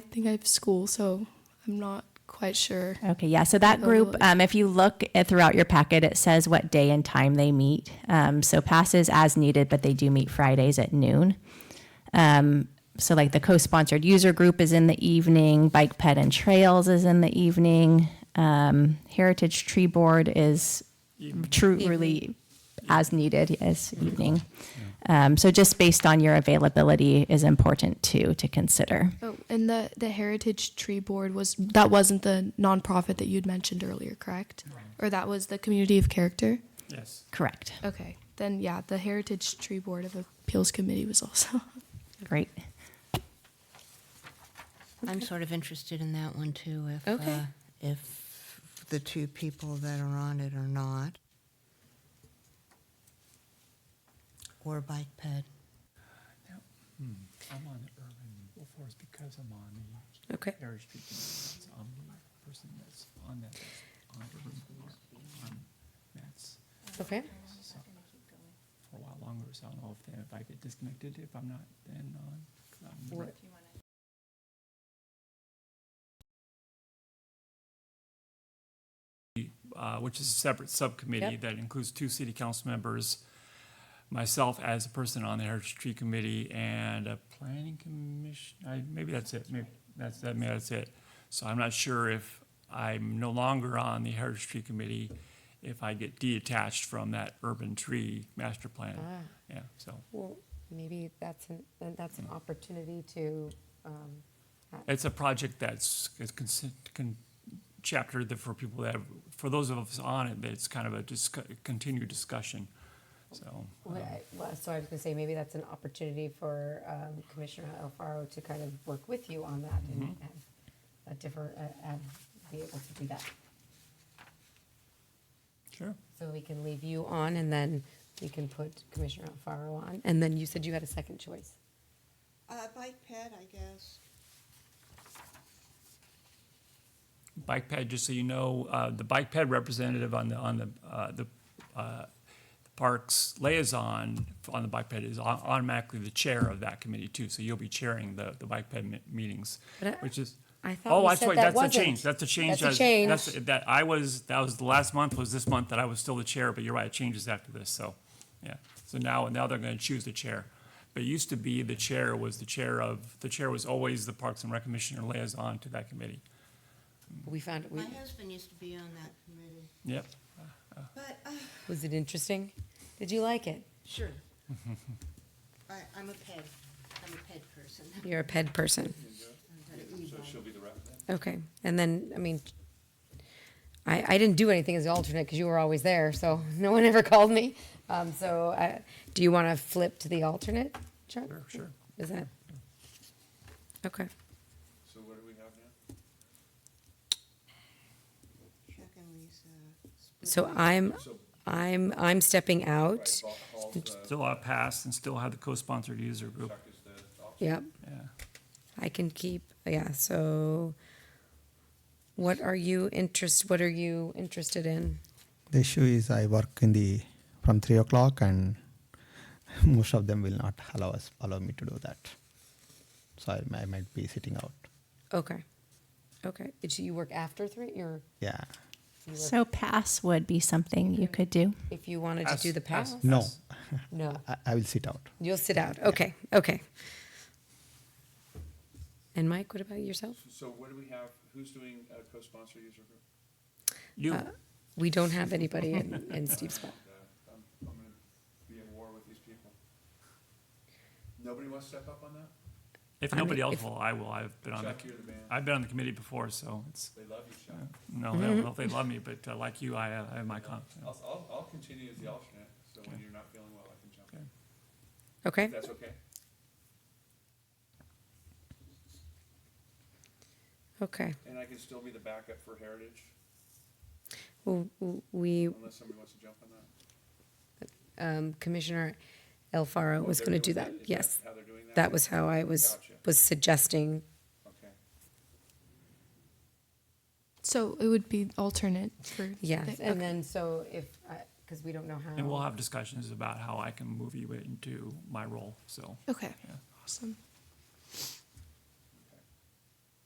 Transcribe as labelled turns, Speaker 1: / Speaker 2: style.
Speaker 1: think I have school, so I'm not quite sure.
Speaker 2: Okay, yeah. So that group, um, if you look at throughout your packet, it says what day and time they meet. Um, so passes as needed, but they do meet Fridays at noon. Um, so like the co-sponsored user group is in the evening. Bike Ped and Trails is in the evening. Um, Heritage Tree Board is truly as needed as evening. Um, so just based on your availability is important too to consider.
Speaker 1: Oh, and the the Heritage Tree Board was that wasn't the nonprofit that you'd mentioned earlier, correct? Or that was the Community of Character.
Speaker 3: Yes.
Speaker 2: Correct.
Speaker 1: Okay, then yeah, the Heritage Tree Board of Appeals Committee was also.
Speaker 2: Great.
Speaker 4: I'm sort of interested in that one too, if,
Speaker 5: Okay.
Speaker 4: uh, if
Speaker 5: the two people that are on it or not.
Speaker 4: or bike ped.
Speaker 3: I'm on the urban Wolf Forest because I'm on the
Speaker 5: Okay.
Speaker 3: Parish Street. Commission. So I'm the person that's on that, that's on urban Wolf, on Matt's
Speaker 5: Okay.
Speaker 3: so- for a while longer, so I don't know if, then if I get disconnected, if I'm not, then uh, on. 'cause I'm the
Speaker 5: What-
Speaker 6: uh, which is a separate subcommittee
Speaker 5: Yep.
Speaker 6: that includes two city council members, myself as a person on the Heritage Tree Committee, and a planning commission, I, maybe that's it, maybe, that's, that, maybe that's it. So I'm not sure if I'm no longer on the Heritage Tree Committee, if I get detached from that urban tree master plan.
Speaker 7: Uh.
Speaker 6: Yeah, so,
Speaker 7: Well, maybe that's an, then that's an opportunity to, um,
Speaker 6: it's a project that's, is consent, con, chapter that for people that, have- for those of us on it, that it's kind of a discu, continued discussion, so.
Speaker 7: well, I- well, so I was gonna say, maybe that's an opportunity for um, Commissioner Alfaro to kind of work with you on that and have a different, uh, have, be able to do that.
Speaker 6: Sure.
Speaker 7: So we can leave you on and then we can put Commissioner Alfaro on. And then you said you had a second choice.
Speaker 5: Uh, bike ped, I guess.
Speaker 6: Bike ped, just so you know, uh, the bike ped representative on the, on the, uh, the, uh, the parks liaison on the bike ped is au- automatically the chair of that committee too, so you'll be chairing the, the bike ped me- meetings,
Speaker 7: But I-
Speaker 6: which is.
Speaker 7: I thought
Speaker 6: Oh,
Speaker 7: we
Speaker 6: that's
Speaker 7: said
Speaker 6: right,
Speaker 7: that
Speaker 6: that's a change,
Speaker 7: wasn't.
Speaker 6: that's a change.
Speaker 7: That's a
Speaker 6: that's-
Speaker 7: change.
Speaker 6: That, I was, that was, the last month was this month that I was still the chair, but you're right, it changes after this, so, yeah. So now, now they're gonna choose the chair. But it used to be the chair was the chair of, the chair was always the Parks and Rec Commissioner liaison to that committee.
Speaker 7: We found, we,
Speaker 4: My husband used to be on that committee.
Speaker 6: Yep.
Speaker 5: But, uh,
Speaker 7: was it interesting? Did you like it?
Speaker 4: Sure. I, I'm a ped, I'm a ped person.
Speaker 7: You're a ped person.
Speaker 4: So she'll be.
Speaker 7: Okay, and then, I mean, I, I didn't do anything as the alternate because you were always there, so no one ever called me. Um, so, uh, do you want to flip to the alternate, Chuck?
Speaker 6: Sure, sure.
Speaker 7: Is that? Okay,
Speaker 5: Chuck and Lisa. split
Speaker 7: so
Speaker 5: it.
Speaker 7: I'm, I'm, I'm stepping out.
Speaker 6: Still have pass and still have the co-sponsored user group,
Speaker 7: Yep,
Speaker 6: yeah.
Speaker 7: I can keep, yeah, so what are you interest, what are you interested in?
Speaker 8: The issue is I work in the from three o'clock, and most of them will not allow us allow me to do that. So I, I might be sitting out.
Speaker 7: Okay, okay, It's- you work after three, you're,
Speaker 8: Yeah.
Speaker 7: you work,
Speaker 2: So pass would be something you could do.
Speaker 7: if you wanted to do the pass?
Speaker 8: No,
Speaker 7: No.
Speaker 8: I, I will sit out.
Speaker 7: You'll sit out. Okay, okay. And Mike, what about yourself?
Speaker 9: So what do we have, who's doing a co-sponsor user group?
Speaker 6: You,
Speaker 7: We don't have anybody in, in Steve's spot.
Speaker 9: Uh, I'm, I'm gonna be at war with these people. Nobody wants to step up on that?
Speaker 6: if
Speaker 7: Uh, I mean,
Speaker 6: nobody else
Speaker 7: if-
Speaker 6: will, I will, I've been on the,
Speaker 9: Chuck, you're the man.
Speaker 6: I've been on the committee before, so it's, uh,
Speaker 9: They love you, Chuck.
Speaker 6: no,
Speaker 7: Mm-hmm.
Speaker 6: I don't know if they love me, but uh, like you, I, uh, I have my
Speaker 9: I'll,
Speaker 6: confidence.
Speaker 9: I'll, I'll continue as the alternate, so when you're not feeling well, I can jump in.
Speaker 7: Okay,
Speaker 9: If that's okay?
Speaker 7: okay.
Speaker 9: And I can still be the backup for Heritage,
Speaker 7: Well, w- we,
Speaker 9: unless somebody wants to jump on that.
Speaker 7: um, Commissioner Alfaro was gonna do that,
Speaker 9: Is
Speaker 7: yes.
Speaker 9: How they're doing that?
Speaker 7: That was how I was,
Speaker 9: Gotcha.
Speaker 7: was suggesting,
Speaker 9: Okay.
Speaker 1: So it would be alternate for.
Speaker 7: yes.
Speaker 1: the-
Speaker 7: And then, so if, because we don't know how.
Speaker 6: And we'll have discussions about how I can move you into my role, so.
Speaker 1: Okay,
Speaker 6: Yeah.
Speaker 1: awesome.